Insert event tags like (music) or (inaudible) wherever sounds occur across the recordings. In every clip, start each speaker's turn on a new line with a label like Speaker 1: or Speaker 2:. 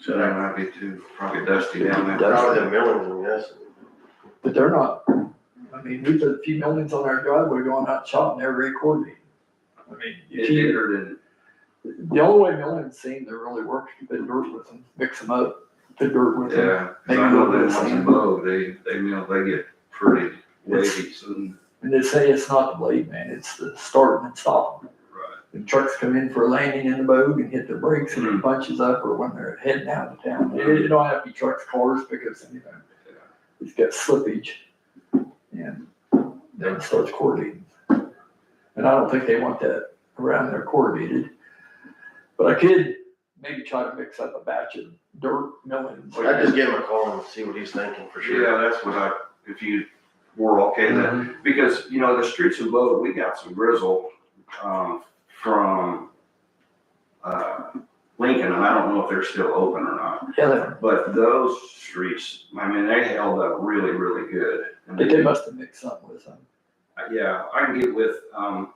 Speaker 1: So that might be too, probably dusty down there.
Speaker 2: Probably the
Speaker 3: Dusty.
Speaker 2: milling, yes.
Speaker 3: But they're not, I mean, we put a few millions on our driveway going out chopping every quarter. I mean, you
Speaker 1: It
Speaker 3: can't-
Speaker 1: did or didn't?
Speaker 3: the only way millings seem to really work is you put dirt with them, mix them up, put dirt with them.
Speaker 1: Yeah, 'cause I know that once you
Speaker 3: Maybe.
Speaker 1: blow, they, they, you know, they get pretty wavy soon.
Speaker 3: And they say it's not the blade, man, it's the starting and stopping.
Speaker 1: Right.
Speaker 3: The trucks come in for a landing in the bogue and hit the brakes and
Speaker 1: Mhm.
Speaker 3: it punches up or when they're heading out of town. It, it don't have to be trucks, cars, because, you know, it's got slippage. And then it starts coordinating. And I don't think they want that around there coordinated. But I could maybe try to mix up a batch of dirt milling.
Speaker 4: Oh,
Speaker 2: I just give him a call and see what he's thinking for sure.
Speaker 1: Yeah, that's what I, if you were okay then,
Speaker 3: Mm-hmm.
Speaker 1: because, you know, the streets of Bowdoin, we got some grizzle, um, from, uh, Lincoln, and I don't know if they're still open or not,
Speaker 3: Yeah, they-
Speaker 1: but those streets, I mean, they held up really, really good. And
Speaker 3: but they must have mixed something with them.
Speaker 1: Yeah, I can get with, um,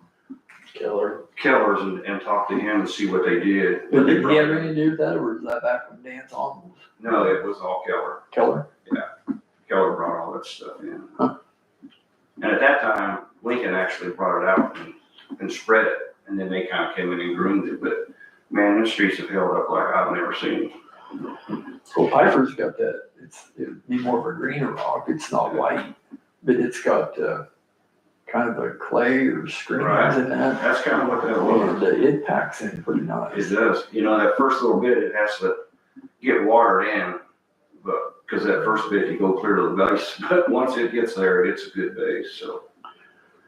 Speaker 2: Killer.
Speaker 1: Kellers and, and talk to him and see what they did.
Speaker 3: But did he have anything to do with that, or is that back when Dan's on was
Speaker 1: No, it was all Keller.
Speaker 3: Keller?
Speaker 1: Keller brought all that stuff in.
Speaker 3: Huh.
Speaker 1: And at that time, Lincoln actually brought it out and, and spread it, and then they kind of came in and groomed it, but man, the streets have held up like I've never seen.
Speaker 3: Well, Piper's got that, it's, it'd be more of a greener rock, it's not white, but it's got, uh, kind of a clay or screens
Speaker 1: Right.
Speaker 3: in that.
Speaker 1: That's kind of what that
Speaker 3: And
Speaker 1: was.
Speaker 3: uh, it packs in pretty
Speaker 1: It
Speaker 3: nice.
Speaker 1: does, you know, that first little bit, it has to get watered in, but, because that first bit, you go clear to the base, (laughs) but once it gets there, it's a good base, so.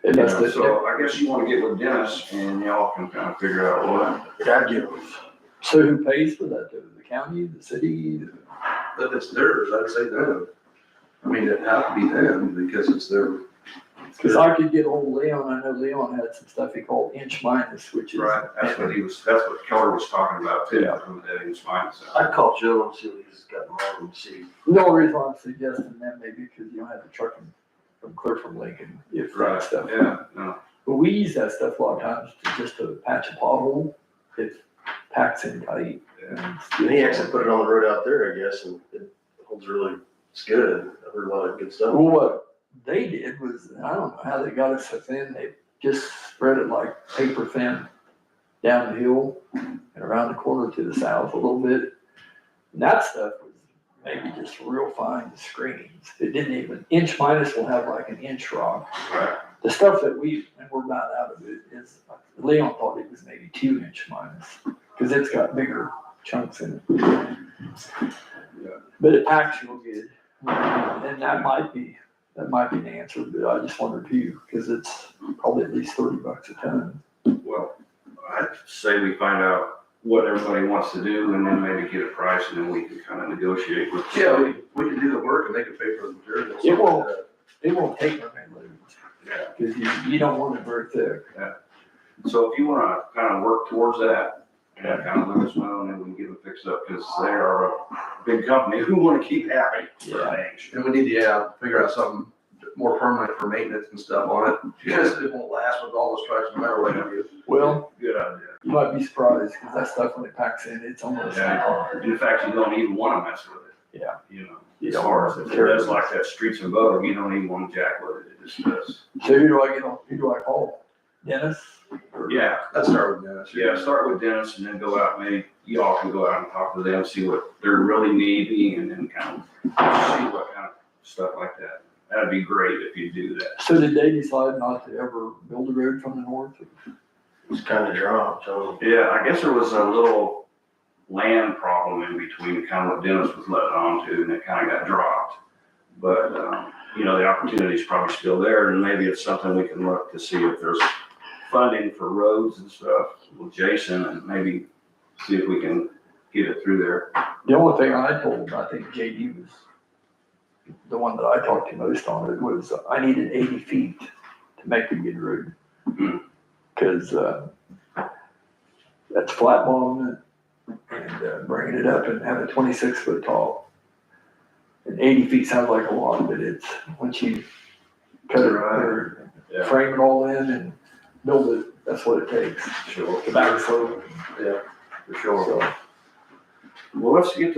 Speaker 3: It
Speaker 1: you know,
Speaker 3: must have-
Speaker 1: So I guess you want to get with Dennis and y'all can kind of figure out what.
Speaker 2: I'd give him.
Speaker 3: So who pays for that? though? The county, the city?
Speaker 4: If it's theirs, I'd say them. I mean, it'd have to be them because it's their.
Speaker 3: Cause I could get old Leon, I know Leon had some stuff he called inch minus, which is.
Speaker 1: Right, that's what he was, that's what Keller was talking about too, from that he was finding stuff.
Speaker 2: I'd call Joe and see what he's got in mind and see.
Speaker 3: The only reason why I'm suggesting that maybe because you don't have to truck him from clear from Lincoln, if that
Speaker 1: Right,
Speaker 3: stuff.
Speaker 1: yeah, no,
Speaker 3: But we use that stuff a lot of times to just to patch a pothole. It packs in tight. and it's-
Speaker 2: And he actually put it on the road out there, I guess, and it holds really, it's good. I heard a lot of good stuff.
Speaker 3: Well, what they did was, I don't know how they got it so thin, they just spread it like paper thin down the hill and around the corner to the south a little bit. And that stuff was maybe just real fine screens. It didn't even, inch minus will have like an inch rock.
Speaker 1: right,
Speaker 3: The stuff that we, and we're about out of it, is, Leon thought it was maybe two inch minus, because it's got bigger chunks in it. But it packs real good. And that might be, that might be an answer, but I just wondered too, because it's probably at least thirty bucks a ton.
Speaker 1: well, I'd say we find out what everybody wants to do and then maybe get a price and then we can kind of negotiate with.
Speaker 4: Yeah, we, we can do the work and they can pay for the materials.
Speaker 3: It won't, it won't take very much,
Speaker 1: Yeah,
Speaker 3: because you, you don't want it very thick.
Speaker 1: so if you wanna kind of work towards that, yeah, kind of let us know and then we can get it fixed up, because they are a big company (laughs) who wanna keep happy.
Speaker 3: Yeah.
Speaker 1: Thanks.
Speaker 4: And we need to, yeah, figure out something more permanent for maintenance and stuff on it (laughs) because it won't last with all those trucks no matter what you do.
Speaker 3: Well,
Speaker 1: Good idea.
Speaker 3: you might be surprised, because that stuff when it packs in, it's almost.
Speaker 1: Yeah. In fact, you don't even wanna mess with it.
Speaker 3: Yeah.
Speaker 1: You know,
Speaker 3: You
Speaker 1: as
Speaker 3: don't
Speaker 1: far
Speaker 3: wanna-
Speaker 1: as, if it does like that streets and boat, you don't even wanna jack with it, it just does.
Speaker 3: So who do I get on, who do I call? Dennis? Or-
Speaker 1: Yeah,
Speaker 4: Let's start with that.
Speaker 1: Yeah, start with Dennis and then go out, maybe y'all can go out and talk to them, see what they're really needing and then kind of see what kind of stuff like that. That'd be great if you do that.
Speaker 3: So did they decide not to ever build a road from the north?
Speaker 2: It's kind of dry, so.
Speaker 1: Yeah, I guess there was a little land problem in between, kind of what Dennis was letting on to, and it kind of got dropped. But, um, you know, the opportunity's probably still there and maybe it's something we can look to see if there's funding for roads and stuff with Jason and maybe see if we can get it through there.
Speaker 3: The only thing I told him, I think JD was the one that I talked to most on it was I needed eighty feet to make a good road.
Speaker 1: Hmm.
Speaker 3: Cause, uh, that's flat bottom and uh, bringing it up and having twenty-six foot tall. And eighty feet sounds like a lot, but it's, once you cut it or
Speaker 1: Yeah.
Speaker 3: frame it all in and build it, that's what it takes.
Speaker 1: Sure.
Speaker 3: The back slope,
Speaker 4: Yeah, for sure.
Speaker 3: so.
Speaker 1: Well, let's get the